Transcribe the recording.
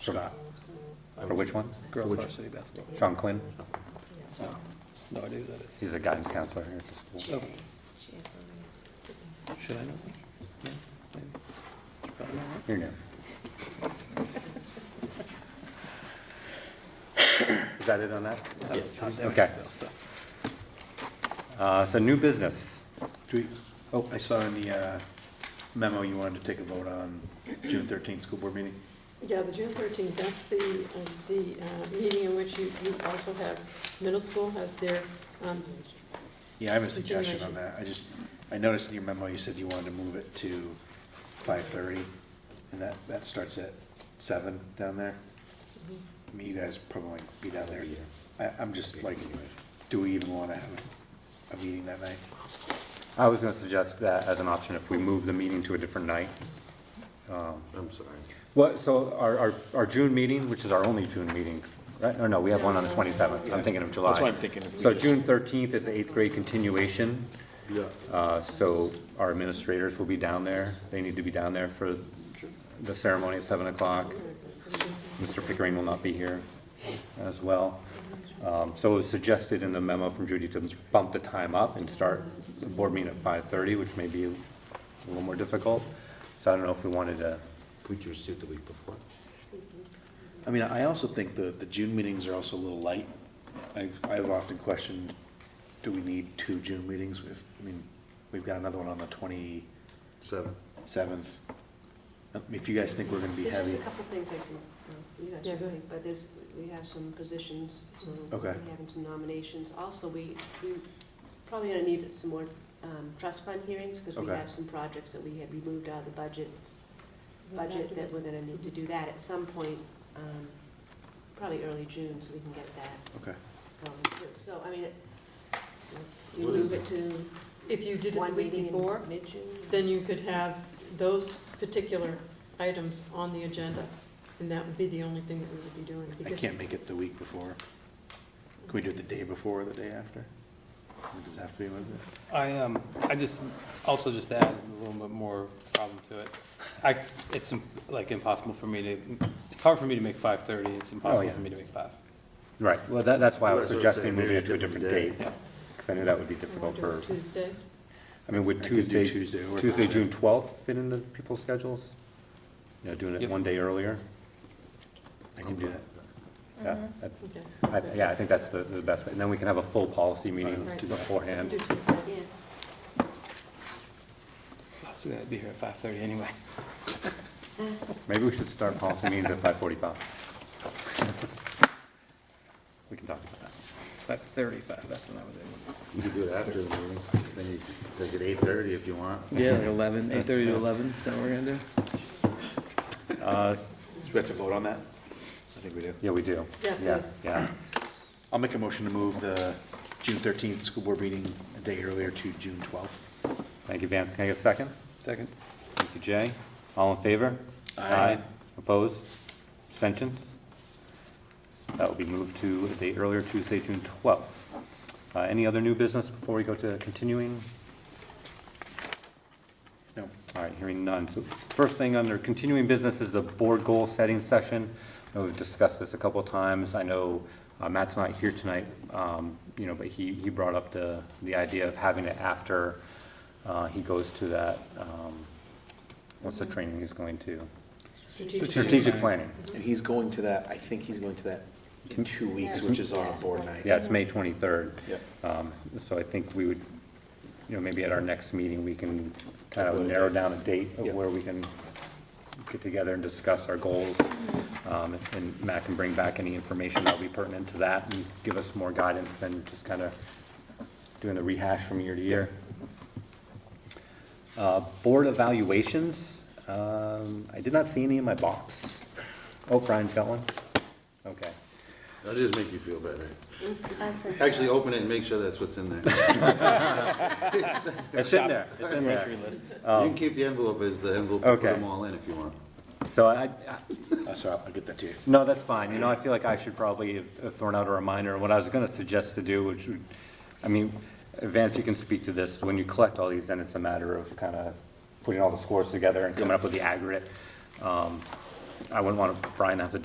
Scott. For which one? Girls varsity basketball. Oh, Sean Quinn? No idea who that is. He's a guidance counselor here at the school. Oh, should I know? Yeah, maybe. Should probably know that. You're new. Is that it on that? That was Tom Dennis Okay. still, so. Uh, So new business. Do we, oh, I saw in the uh, memo you wanted to take a vote on June thirteenth school board meeting. Yeah, the June thirteenth, that's the, uh, the uh, meeting in which you, you also have, middle school has their, um, Yeah, I have a suggestion on that. I just, I noticed in your memo, you said you wanted to move it to five thirty, and that, that starts at seven down there. I mean, you guys probably won't be down there. I, I'm just like, do we even want to have a meeting that night? I was going to suggest that as an option if we move the meeting to a different night. um, I'm sorry. What, so our, our, our June meeting, which is our only June meeting, right? Or no, we have one on the 27th. I'm thinking of July. That's why I'm thinking if we So just- June 13th is the eighth grade continuation. Yeah, Uh, So our administrators will be down there. They need to be down there for the ceremony at 7 o'clock. Mr. Pickering will not be here as well. Um, So it was suggested in the memo from Judy to bump the time up and start the board meeting at 5:30, which may be a little more difficult. So I don't know if we wanted to, we just did the week before. I mean, I also think the, the June meetings are also a little light. I've, I've often questioned, do we need two June meetings? If, I mean, we've got another one on the twenty-seventh. Seven. Um, If you guys think we're gonna be There's heavy, just a couple things I can, uh, you guys Yeah, are go doing, but there's, we have some positions, so Oh. we Okay. have some nominations. Also, we, we probably gonna need some more um, trust fund hearings, because we Okay. have some projects that we had removed out of the budget, budget that budget we're gonna need to do that at some point, um, probably early June, so we can get that okay. going too. So, I mean, it- do you move it to If you did it the one week meeting before, in mid-June? then you could have those particular items on the agenda, and that would be the only thing that we would be doing. I because- can't make it the week before. Can we do it the day before or the day after? It does have to be with it. I, um, I just, also just to add a little bit more problem to it. I, it's im- like impossible for me to, it's hard for me to make five thirty, it's impossible yeah. for me to make five. right, well, that, that's why I was That's what I'm suggesting saying, moving it maybe to a a different date. different day. Because I knew that would be You wanna difficult do it for, Tuesday? I mean, would I could do Tuesday, Tuesday or Tuesday, Thursday. June 12th fit into people's schedules? You know, doing it Yep. one day earlier? I can do that. Yeah, that- Okay. I- yeah, I think that's the, the best way. And then we can have a full policy meeting Right. Do beforehand. Tuesday. Yeah, So that'd be here at five thirty anyway. Maybe we should start policy meetings at 5:45. We can talk about that. Five thirty-five, that's when I was able. You can do it after the meeting, then you take it eight thirty if you want. Yeah, like eleven, eight thirty to eleven, is that what we're gonna do? Uh, Do we have to vote on that? I think we do. Yeah, we do. Yeah, Yes. please. Yeah, I'll make a motion to move the June thirteenth school board meeting a day earlier to June twelfth. thank you, Vance. Can I get a second? Second. Thank you, Jay. All in favor? Aye. Opposed? Abstentions? That will be moved to a day earlier, Tuesday, June 12th. Uh, Any other new business before we go to continuing? No, All right, hearing none. So first thing under continuing business is the board goal setting session. I know we've discussed this a couple of times. I know uh, Matt's not here tonight, um, you know, but he, he brought up the, the idea of having it after uh, he goes to that, um, what's the training he's going to? Strategic planning. and he's going to that, I think he's going to that in two weeks, which is our board night. Yeah, it's May 23rd. Yep. Um, So I think we would, you know, maybe at our next meeting, we can kind of narrow down a date of Yeah. where we can get together and discuss our goals. Um, And Matt can bring back any information that'll be pertinent to that and give us more guidance than just kind of doing the rehash from year to year. Uh, Board evaluations, um, I did not see any in my box. Oh, Brian's got one? Okay. That'll just make you feel better. Actually, open it and make sure that's what's in there. You It's in there, it's in there. Grocery lists. can keep the envelope as the envelope, and put Okay. them all in if you want. So I, I- Uh, so I'll I'll get that to you. no, that's fine, you know, I feel like I should probably have- have thrown out a reminder, what I was gonna suggest to do, which would, I mean, Vance, you can speak to this, when you collect all these, then it's a matter of kinda putting all the scores together and coming up with the aggregate. Um, I wouldn't want Brian to have to do